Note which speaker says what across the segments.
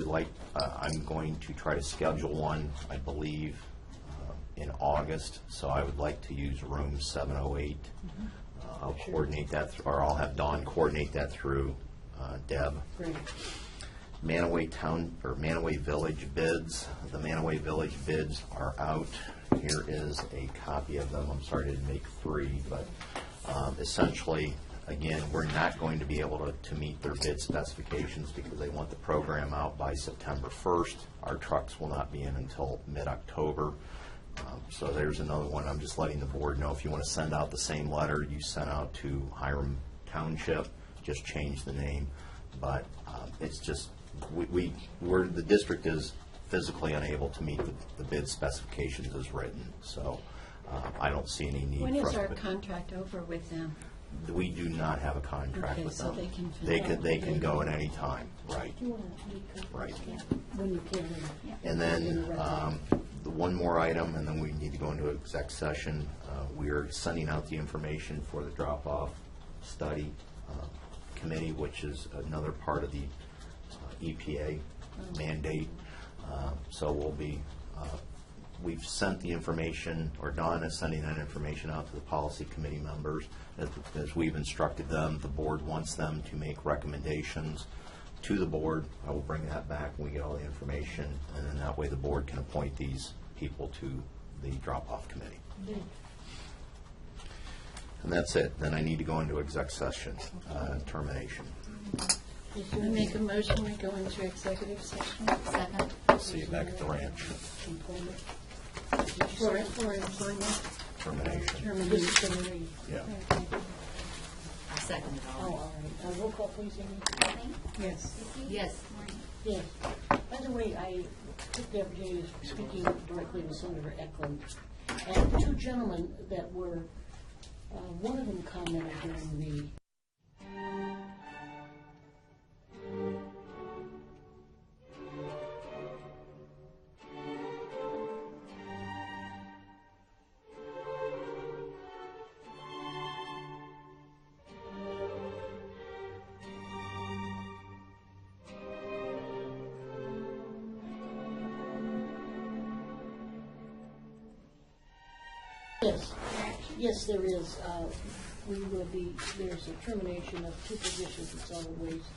Speaker 1: like, uh, I'm going to try to schedule one, I believe, uh, in August, so I would like to use room 708. Uh, I'll coordinate that, th- or I'll have Dawn coordinate that through uh, Deb.
Speaker 2: Great.
Speaker 1: Manaway Town, or Manaway Village bids. The Manaway Village bids are out. Here is a copy of them. I'm sorry I didn't make three, but um, essentially, again, we're not going to be able to, to meet their bid specifications because they want the program out by September 1st. Our trucks will not be in until mid-October. Um, So there's another one. I'm just letting the board know, if you want to send out the same letter you sent out to Hiram Township, just change the name. But um, it's just, we, we, we're, the district is physically unable to meet the- the bid specifications as written. So uh, I don't see any need for us.
Speaker 2: When is
Speaker 1: to-
Speaker 2: our contract over with them?
Speaker 1: We do not have a contract
Speaker 2: Okay,
Speaker 1: with
Speaker 2: so
Speaker 1: them.
Speaker 2: they can fill
Speaker 1: They
Speaker 2: out.
Speaker 1: can, they can go at any time, right? Right.
Speaker 2: When you can.
Speaker 1: And then, um, the one more item, and then we need to go into exec session. Uh, We are sending out the information for the drop-off study uh, committee, which is another part of the uh, EPA mandate. Uh, So we'll be, uh, we've sent the information, or Don is sending that information out to the policy committee members. As- As we've instructed them, the board wants them to make recommendations to the board. I will bring that back when we get all the information, and then that way the board can appoint these people to the drop-off committee. And that's it. Then I need to go into exec session, uh, termination.
Speaker 2: I make a motion, we go into executive session. Second.
Speaker 1: See you back at the ranch,
Speaker 2: For, for employment
Speaker 1: termination.
Speaker 2: termination.
Speaker 1: Yeah.
Speaker 3: Second.
Speaker 2: Oh, all right. Uh, Roll call, please, Amy. Yes.
Speaker 3: Yes.
Speaker 2: Yes. By the way, I took the opportunity of speaking directly with Senator Eklund. And two gentlemen that were, uh, one of them commented during the Yes, yes, there is. Uh, We will be, there's a termination of two positions in solid waste,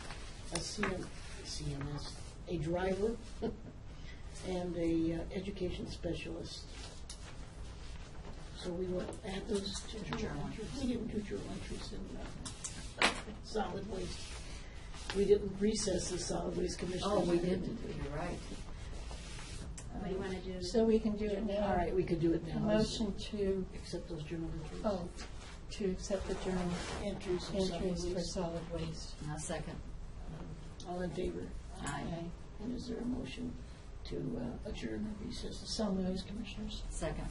Speaker 2: a CM CMS, a driver and a uh, education specialist. So we will add those two journal entries. We didn't do journal entries in uh, solid waste. We didn't recess the solid waste commission.
Speaker 3: Oh, we didn't, you're right.
Speaker 4: What do you want to do?
Speaker 5: So we can do it now.
Speaker 2: All right, we could do it now.
Speaker 5: Motion to,
Speaker 2: Accept those journal entries.
Speaker 5: oh, to accept the journal
Speaker 2: Entries of solid
Speaker 5: entries for
Speaker 2: waste.
Speaker 5: solid waste.
Speaker 3: Now, second.
Speaker 2: All in favor?
Speaker 3: Aye.
Speaker 2: And is there a motion to uh, adjourn or recess?
Speaker 5: So moved, Commissioners.
Speaker 3: Second.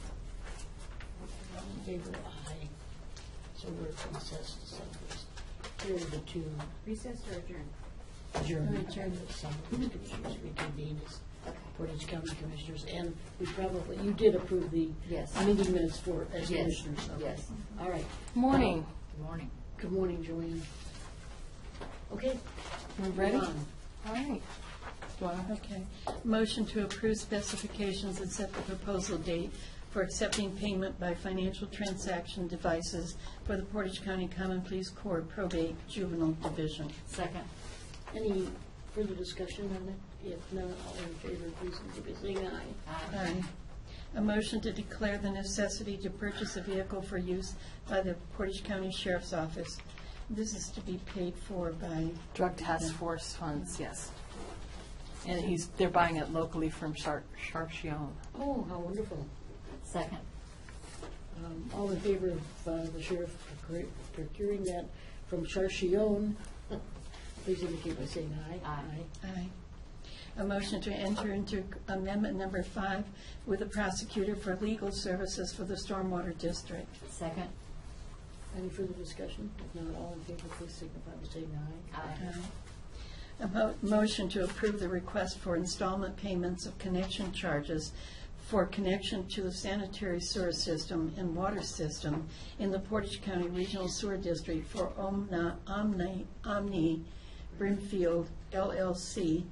Speaker 2: All in favor? Aye. So we're recessed to subcommittees. Here are the two
Speaker 4: Recess or adjourn?
Speaker 2: adjourned.
Speaker 5: Adjourned.
Speaker 2: Subcommittees commissioners reconvened as Portage County Commissioners, and we probably, you did approve the
Speaker 3: Yes.
Speaker 2: meeting minutes for, as
Speaker 3: Yes.
Speaker 2: commissioners. okay.
Speaker 3: Yes.
Speaker 2: All right.
Speaker 5: Morning.
Speaker 3: Good morning.
Speaker 2: Good morning, Joanne. Okay.
Speaker 5: We're ready? All right. Do I- Okay. Motion to approve specifications and set the proposal date for accepting payment by financial transaction devices for the Portage County Common Police Court Probate Juvenile Division.
Speaker 3: Second.
Speaker 2: Any further discussion on that? If not, all in favor, please indicate by saying aye.
Speaker 3: Aye.
Speaker 5: Aye. A motion to declare the necessity to purchase a vehicle for use by the Portage County Sheriff's Office. This is to be paid for by,
Speaker 6: Drug task force funds, yes. And he's, they're buying it locally from Shar- Sharpshion.
Speaker 2: Oh, how wonderful.
Speaker 3: Second.
Speaker 2: Um, All in favor of uh, the sheriff procure- procuring that from Charchione, please indicate by saying aye.
Speaker 3: Aye.
Speaker 5: aye. A motion to enter into amendment number five with the prosecutor for legal services for the Stormwater District.
Speaker 3: Second.
Speaker 2: Any further discussion? If not, all in favor, please signify by saying aye.
Speaker 3: Aye.
Speaker 5: Aye. A mo- motion to approve the request for installment payments of connection charges for connection to the sanitary sewer system and water system in the Portage County Regional Sewer District for Omna- Omni Omni Brimfield LLC